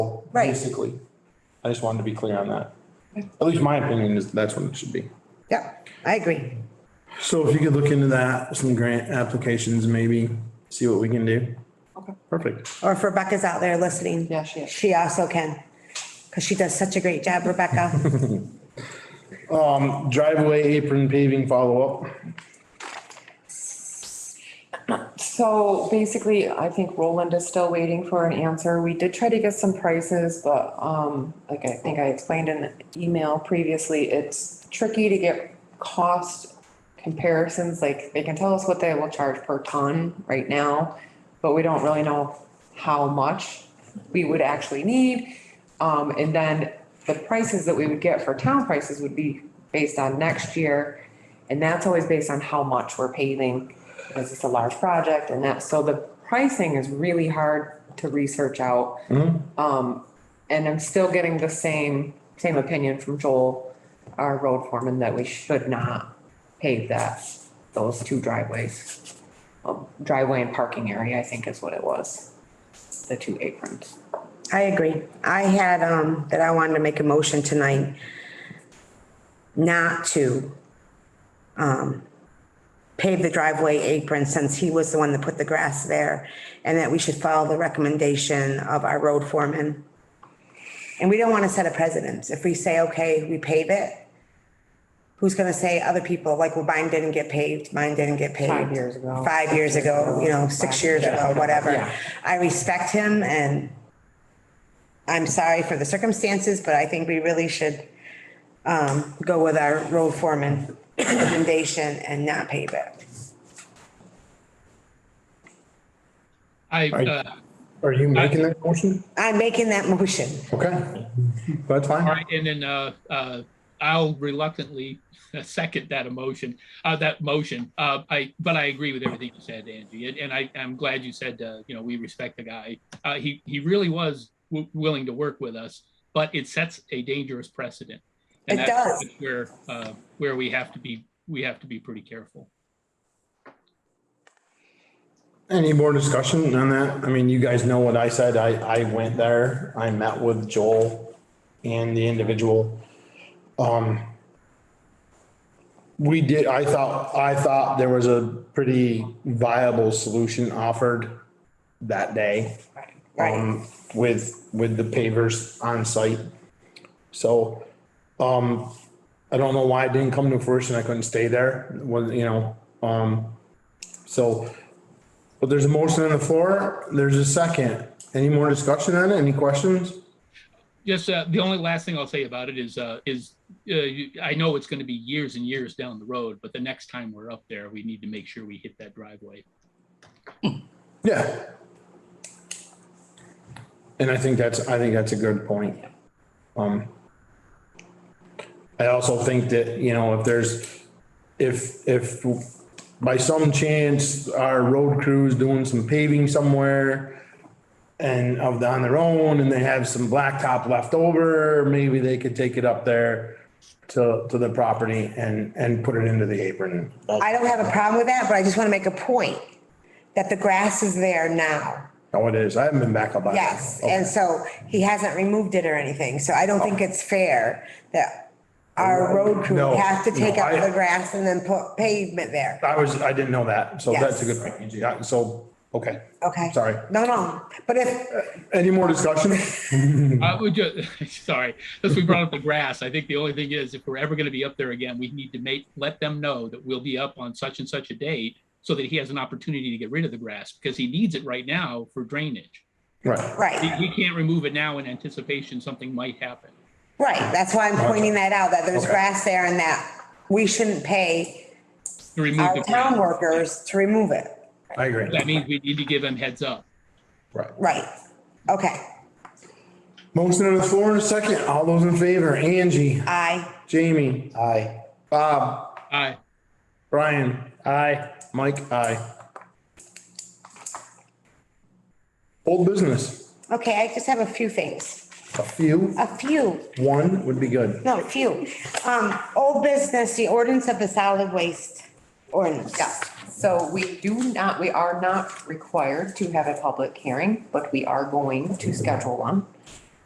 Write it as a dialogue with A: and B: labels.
A: Right.
B: Basically. I just wanted to be clear on that. At least my opinion is that's what it should be.
A: Yeah, I agree.
B: So if you could look into that, some grant applications, maybe see what we can do.
C: Okay.
B: Perfect.
A: Or if Rebecca's out there listening.
C: Yeah, she is.
A: She also can, because she does such a great job, Rebecca.
B: Driveway apron paving follow-up.
C: So basically, I think Roland is still waiting for an answer. We did try to get some prices, but um, like I think I explained in the email previously, it's tricky to get cost comparisons. Like they can tell us what they will charge per ton right now, but we don't really know how much we would actually need. Um, and then the prices that we would get for town prices would be based on next year. And that's always based on how much we're paving, because it's a large project and that, so the pricing is really hard to research out. Um, and I'm still getting the same, same opinion from Joel, our road foreman, that we should not pave that, those two driveways. Um, Driveway and parking area, I think is what it was, the two aprons.
A: I agree. I had, um, that I wanted to make a motion tonight not to, um, pave the driveway apron since he was the one that put the grass there and that we should follow the recommendation of our road foreman. And we don't want to set a precedence. If we say, okay, we pave it, who's gonna say other people, like, well, mine didn't get paved, mine didn't get paved.
C: Five years ago.
A: Five years ago, you know, six years ago, whatever.
C: Yeah.
A: I respect him and I'm sorry for the circumstances, but I think we really should um, go with our road foreman recommendation and not pave it.
D: I,
B: Are-
D: uh,
B: Are you making that motion?
A: I'm making that motion.
B: Okay. That's
D: all
B: fine.
D: right, and then, uh, uh, I'll reluctantly second that emotion, uh, that motion. Uh, I, but I agree with everything you said, Angie, and, and I, I'm glad you said, uh, you know, we respect the guy. Uh, he, he really was w- willing to work with us, but it sets a dangerous precedent. And
A: It
D: that's
A: does.
D: Where, uh, where we have to be, we have to be pretty careful.
B: Any more discussion on that? I mean, you guys know what I said. I, I went there. I met with Joel and the individual. Um, we did, I thought, I thought there was a pretty viable solution offered that day.
A: Right,
B: um, with, with the pavers on site. So, um, I don't know why it didn't come to fruition. I couldn't stay there, was, you know, um, so. But there's a motion on the floor. There's a second. Any more discussion on it? Any questions?
D: Just, uh, the only last thing I'll say about it is, uh, is, uh, you- I know it's gonna be years and years down the road, but the next time we're up there, we need to make sure we hit that driveway.
B: Yeah. And I think that's, I think that's a good point. Um. I also think that, you know, if there's, if, if by some chance our road crew's doing some paving somewhere. And of the- on their own and they have some blacktop left over, maybe they could take it up there. To, to the property and, and put it into the apron.
A: I don't have a problem with that, but I just want to make a point that the grass is there now.
B: Oh, it is. I haven't been back up. on it.
A: Yes, and so he hasn't removed it or anything, so I don't think it's fair that our road crew
B: Oh. No,
A: has to take
B: no,
A: out
B: I-
A: the grass and then put pavement there,
B: I was, I didn't know that, so that's a
A: Yes.
B: good point, Angie. I- So, okay.
A: okay?
B: Sorry.
A: No, no, but if,
B: Any more discussion?
D: I would just, sorry, since we brought up the grass, I think the only thing is if we're ever gonna be up there again, we need to make, let them know that we'll be up on such and such a date so that he has an opportunity to get rid of the grass because he needs it right now for drainage.
B: Right.
A: right.
D: He, he can't remove it now in anticipation something might happen.
A: Right, that's why I'm pointing that out, that there's
B: Okay.
A: grass there and that we shouldn't pay
D: To remove
A: our
D: the
A: town
D: grass,
A: workers to remove it.
B: I agree.
D: that means we need to give him heads up.
B: Right.
A: Right, okay,
B: Motion on the floor in a second. All those in favor, Angie,
A: I,
B: Jamie. Aye. Bob,
D: Aye.
B: Brian. Aye. Mike, aye. Old business,
A: okay, I just have a few things,
B: a few,
A: a few,
B: one would be good.
A: no, a few. Um, old business, the ordinance of the solid waste ordinance.
C: Yeah, so we do not, we are not required to have a public hearing, but we are going to schedule one.